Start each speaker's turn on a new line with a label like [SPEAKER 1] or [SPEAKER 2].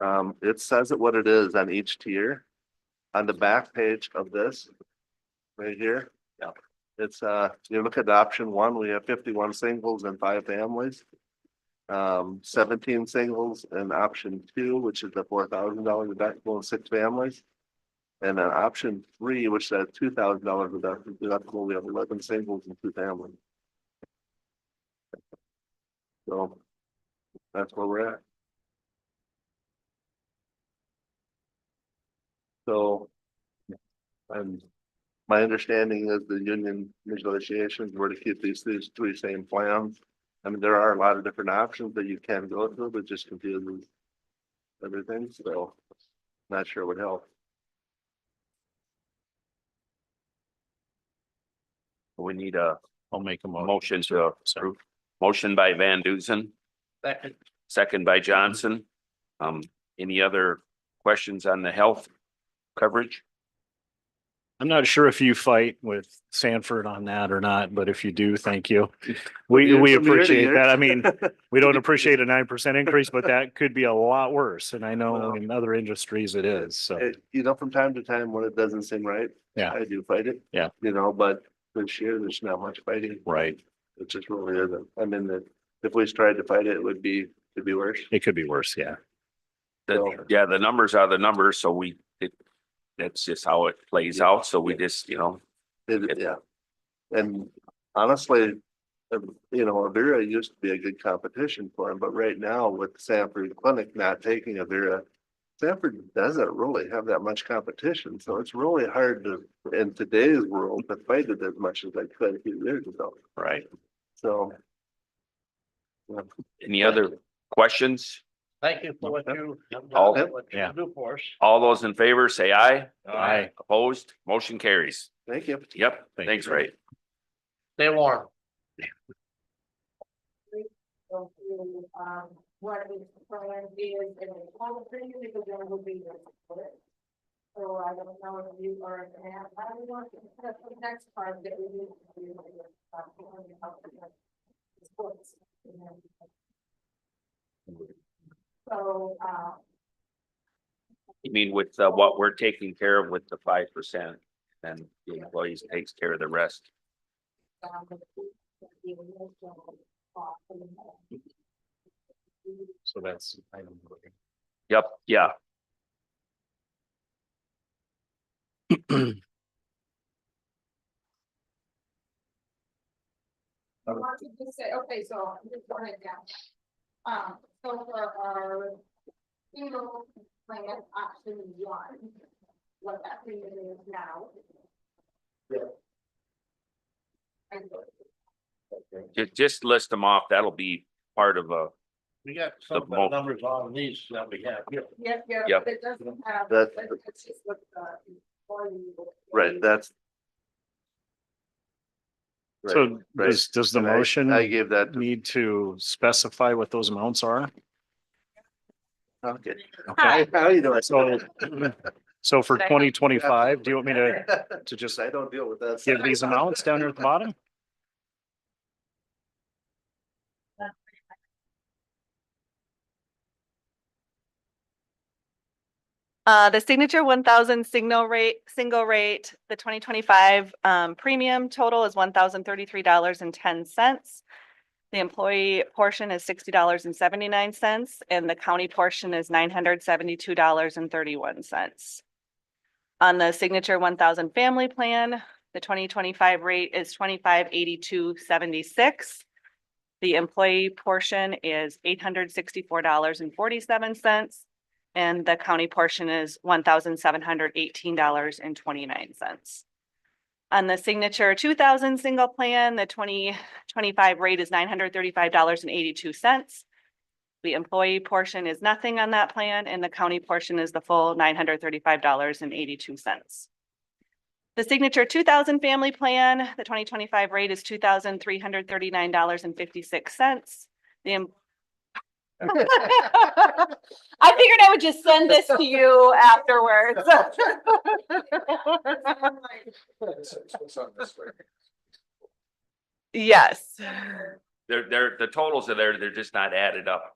[SPEAKER 1] Um, it says it what it is on each tier. On the back page of this. Right here. Yeah. It's, uh, you look at option one, we have fifty-one singles and five families. Um, seventeen singles and option two, which is the four thousand dollar deductible and six families. And then option three, which is two thousand dollar deductible, we have eleven singles and two families. So. That's where we're at. So. And my understanding is the union negotiations were to keep these, these three same plans. I mean, there are a lot of different options that you can go through, but just confuses everything, so not sure would help.
[SPEAKER 2] We need a
[SPEAKER 3] I'll make a motion.
[SPEAKER 2] motion to approve. Motion by Van Dusen,
[SPEAKER 4] Second.
[SPEAKER 2] second by Johnson. Um, any other questions on the health coverage?
[SPEAKER 3] I'm not sure if you fight with Sanford on that or not, but if you do, thank you. We,
[SPEAKER 1] Years
[SPEAKER 3] we
[SPEAKER 1] from year to
[SPEAKER 3] appreciate
[SPEAKER 1] year.
[SPEAKER 3] that. I mean, we don't appreciate a nine percent increase, but that could be a lot worse. And I know
[SPEAKER 1] Well-
[SPEAKER 3] in other industries it is, so.
[SPEAKER 1] It- You know, from time to time, when it doesn't seem right.
[SPEAKER 3] Yeah.
[SPEAKER 1] I do fight it.
[SPEAKER 3] Yeah.
[SPEAKER 1] You know, but this year, there's not much fighting.
[SPEAKER 3] Right.
[SPEAKER 1] It just really isn't. I mean, that if we tried to fight it, it would be, it'd be worse.
[SPEAKER 3] It could be worse, yeah.
[SPEAKER 2] The- yeah, the numbers are the numbers, so we, it, that's just how it plays out. So we just, you know,
[SPEAKER 1] It, yeah. And honestly, um, you know, Avira used to be a good competition for him, but right now with Sanford Clinic not taking Avira. Sanford doesn't really have that much competition, so it's really hard to, in today's world, to fight it as much as I could a few years ago,
[SPEAKER 3] Right.
[SPEAKER 1] so.
[SPEAKER 2] any other questions?
[SPEAKER 4] Thank you for what you. uh,
[SPEAKER 2] All-
[SPEAKER 4] what you
[SPEAKER 3] yeah.
[SPEAKER 4] Do for us.
[SPEAKER 2] All those in favor, say aye.
[SPEAKER 3] Aye.
[SPEAKER 2] Opposed, motion carries.
[SPEAKER 1] Thank you.
[SPEAKER 2] Yep,
[SPEAKER 3] Thank
[SPEAKER 2] thanks,
[SPEAKER 3] you.
[SPEAKER 2] Ray.
[SPEAKER 4] Stay warm.
[SPEAKER 5] go through, um, what is the plan is and all the things that we're gonna be there for it. So I don't know if you are, and I don't want to, that's the next part that we need to do. like, uh, on the health and health supports and everything. So, uh,
[SPEAKER 2] You mean with uh, what we're taking care of with the five percent and the employees takes care of the rest?
[SPEAKER 5] um, the. the emotional cost and uh, the-
[SPEAKER 3] So that's.
[SPEAKER 2] Yep, yeah.
[SPEAKER 5] I want to just say, okay, so I'm just going down. Um, so for our funeral plan option one, what that premium is now. And
[SPEAKER 2] Ju- just list them off. That'll be part of a,
[SPEAKER 4] We got some of
[SPEAKER 2] mo-
[SPEAKER 4] the numbers on these that we have here.
[SPEAKER 5] yeah, yeah,
[SPEAKER 2] Yep.
[SPEAKER 5] but it doesn't have, but
[SPEAKER 1] That's-
[SPEAKER 5] it's just what the employee. will pay.
[SPEAKER 1] Right, that's. Right,
[SPEAKER 3] So
[SPEAKER 1] right.
[SPEAKER 3] does, does the
[SPEAKER 1] And I- I
[SPEAKER 3] motion
[SPEAKER 1] gave that, to-
[SPEAKER 3] need to specify what those amounts are?
[SPEAKER 1] okay.
[SPEAKER 3] Okay.
[SPEAKER 1] How you doing?
[SPEAKER 3] So, so for
[SPEAKER 5] Second.
[SPEAKER 3] twenty twenty-five, do you want me to, to just
[SPEAKER 1] I don't deal with that.
[SPEAKER 3] give these amounts down here at the bottom?
[SPEAKER 6] Uh, the signature one thousand signal rate, single rate, the twenty twenty-five um premium total is one thousand thirty-three dollars and ten cents. The employee portion is sixty dollars and seventy-nine cents and the county portion is nine hundred seventy-two dollars and thirty-one cents. On the signature one thousand family plan, the twenty twenty-five rate is twenty-five eighty-two seventy-six. The employee portion is eight hundred sixty-four dollars and forty-seven cents. And the county portion is one thousand seven hundred eighteen dollars and twenty-nine cents. On the signature two thousand single plan, the twenty twenty-five rate is nine hundred thirty-five dollars and eighty-two cents. The employee portion is nothing on that plan and the county portion is the full nine hundred thirty-five dollars and eighty-two cents. The signature two thousand family plan, the twenty twenty-five rate is two thousand three hundred thirty-nine dollars and fifty-six cents. The em- I figured I would just send this to you afterwards. Yes,
[SPEAKER 2] they're, they're, the totals are there. They're just not added up.